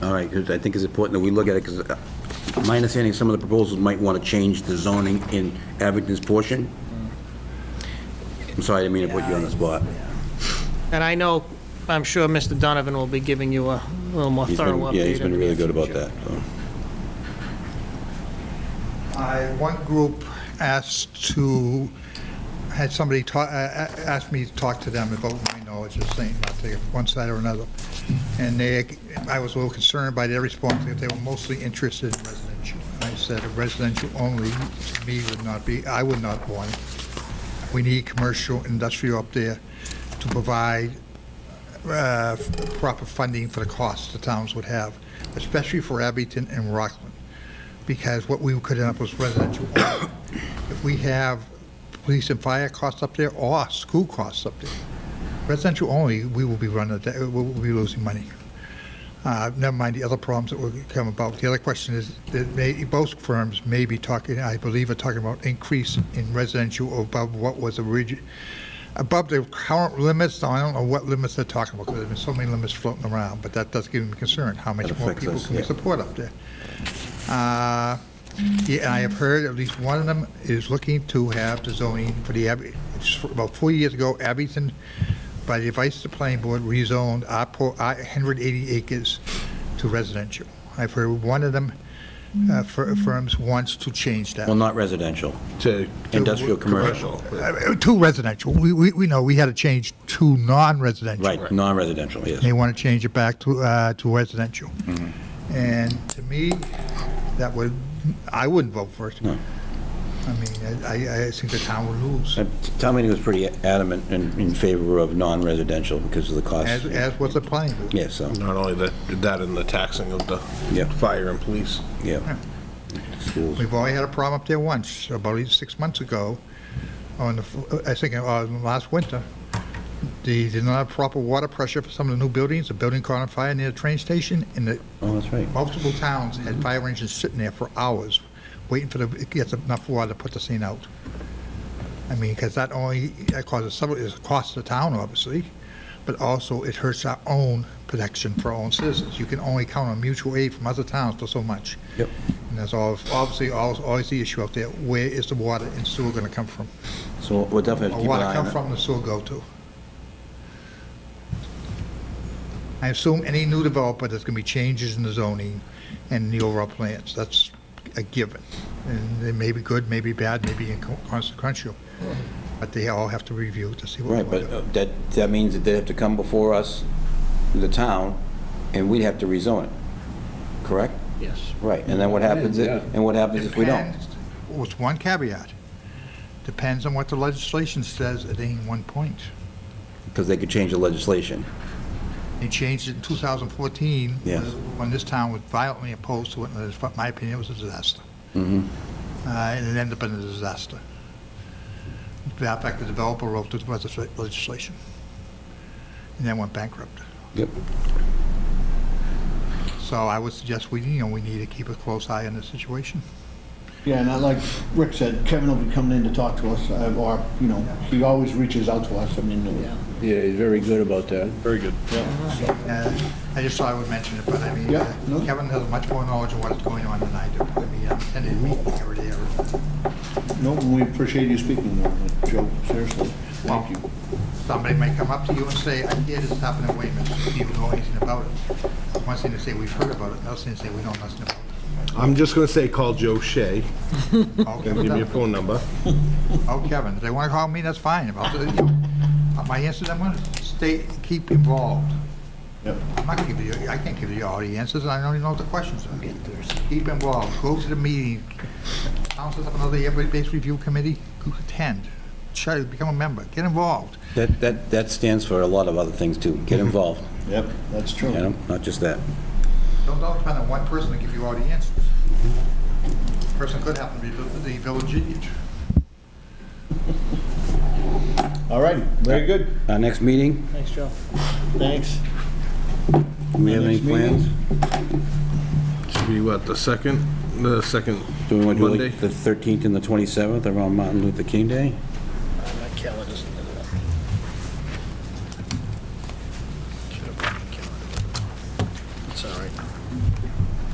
right, because I think it's important that we look at it, because my understanding, some of the proposals might want to change the zoning in Abington's portion. I'm sorry, I didn't mean to put you on the spot. And I know, I'm sure Mr. Donovan will be giving you a little more He's thorough been- update. Yeah, he's in been the really near good about future. that. so. I, one group asked to, had somebody ta- a- a- asked me to talk to them about my knowledge of St. Montague, one side or another. And they, I was a little concerned by their response, that they were mostly interested in residential. And I said, residential only, to me, would not be, I would not want. it. We need commercial, industrial up there to provide uh, proper funding for the costs the towns would have, especially for Abington and Rockland because what we could end up with residential. only. If we have police and fire costs up there or school costs up there, residential only, we will be running, we will be losing money. Uh, Never mind the other problems that will come about. The other question is, that may- both firms may be talking, I believe, are talking about increase in residential above what was origi, above the current limits. Now, I don't know what limits they're talking about, because there's been so many limits floating around, but that does give me concern. How much That more affects people us, can we yeah. support up there? Uh, Yeah, and I have heard at least one of them is looking to have the zoning for the, Ab- it's about four years ago, Abington, by the advice of the planning board, rezoned our po- our 180 acres to residential. I've heard one of them, uh, fir- firms wants to change that. Well, not residential, to industrial, commercial. Uh, To residential. We, we, we know, we had to change to non-residential. Right, non-residential, yes. They want to change it back to, uh, to residential. And to me, that would, I wouldn't vote for it. No. I mean, I, I- I think the town would lose, Uh, Town meeting was pretty adamant in, in favor of non-residential because of the as, cost. as was the planning board. Yeah, so, Not only that, that and the taxing of the Yeah. fire and police. yeah. Schools. We've only had a problem up there once, about eight- six months ago, on the, f- I think, uh, last winter. They did not have proper water pressure for some of the new buildings, the building caught on fire near the train station, and the Oh, that's right. multiple towns had fire engines sitting there for hours, waiting for the, it gets enough water to put the scene out. I mean, because that only, that causes, some- it costs the town, obviously, but also it hurts our own protection for our own citizens. You can only count on mutual aid from other towns for so much. Yep. And that's all, obviously, always, always the issue out there, where is the water and sewer going to come from? So we'll definitely have to Or keep an water eye on come it. from, the sewer go to? I assume any new developer, there's going to be changes in the zoning and the overall plans. That's a given. And they may be good, may be bad, may be inconsequential, but they all have to review to see what. Right, but uh, that, that means that they have to come before us, the town, and we'd have to rezone it, correct? Yes. Right, and then what happens, if- and what happens uh, if we don't? Depends- With one caveat, depends on what the legislation says at any one point. Because they could change the legislation. They changed it in 2014. Yes. When this town was violently opposed to it, and in my opinion, it was a disaster. Mm-hmm. Mhm. Uh, And it ended up in a disaster. In fact, the developer wrote the legisla- legislation, and then went bankrupt. Yep. So I would suggest we, you know, we need to keep a close eye on the situation. Yeah, and I, like Rick said, Kevin will be coming in to talk to us, uh, or, you know, he always reaches out to us, I mean, uh, Yeah, he's very good about that. Very good. Uh, I just thought I would mention it, but I mean, Yeah, no. uh, Kevin has much more knowledge of what's going on than I do. I mean, I'm attending a meeting every day. every- no, we appreciate you speaking, uh, Joe, seriously, Well, thank you. Somebody may come up to you and say, I hear this happened in Weymouth, do you know anything about it? One thing to say, we've heard about it, another thing to say, we don't know nothing I'm just gonna say, call Joe Shea, about it. and give me a Okay. phone number. Oh, Kevin, if they want to call me, that's fine. I'll, you know, my answers, I'm going to stay, keep involved. Yep. I'm not going to give you, I can't give you all the answers, I don't even know what the questions are. Keep involved, go to the meeting, council, have another everybody-based review committee, go attend, try, become a member, get involved. That, that, that stands for a lot of other things too. Get involved, Yep, that's true. you know, not just that. Don't, don't depend on one person to give you all the answers. Person could happen to be the the village idiot. All right, very good, Our next meeting, Thanks, Joe. thanks. do we have any next meeting? plans? Should be what, the second, the second Do we want to do Monday? like the 13th and the 27th around Martin Luther King Day? My calendar's not up. It's all right.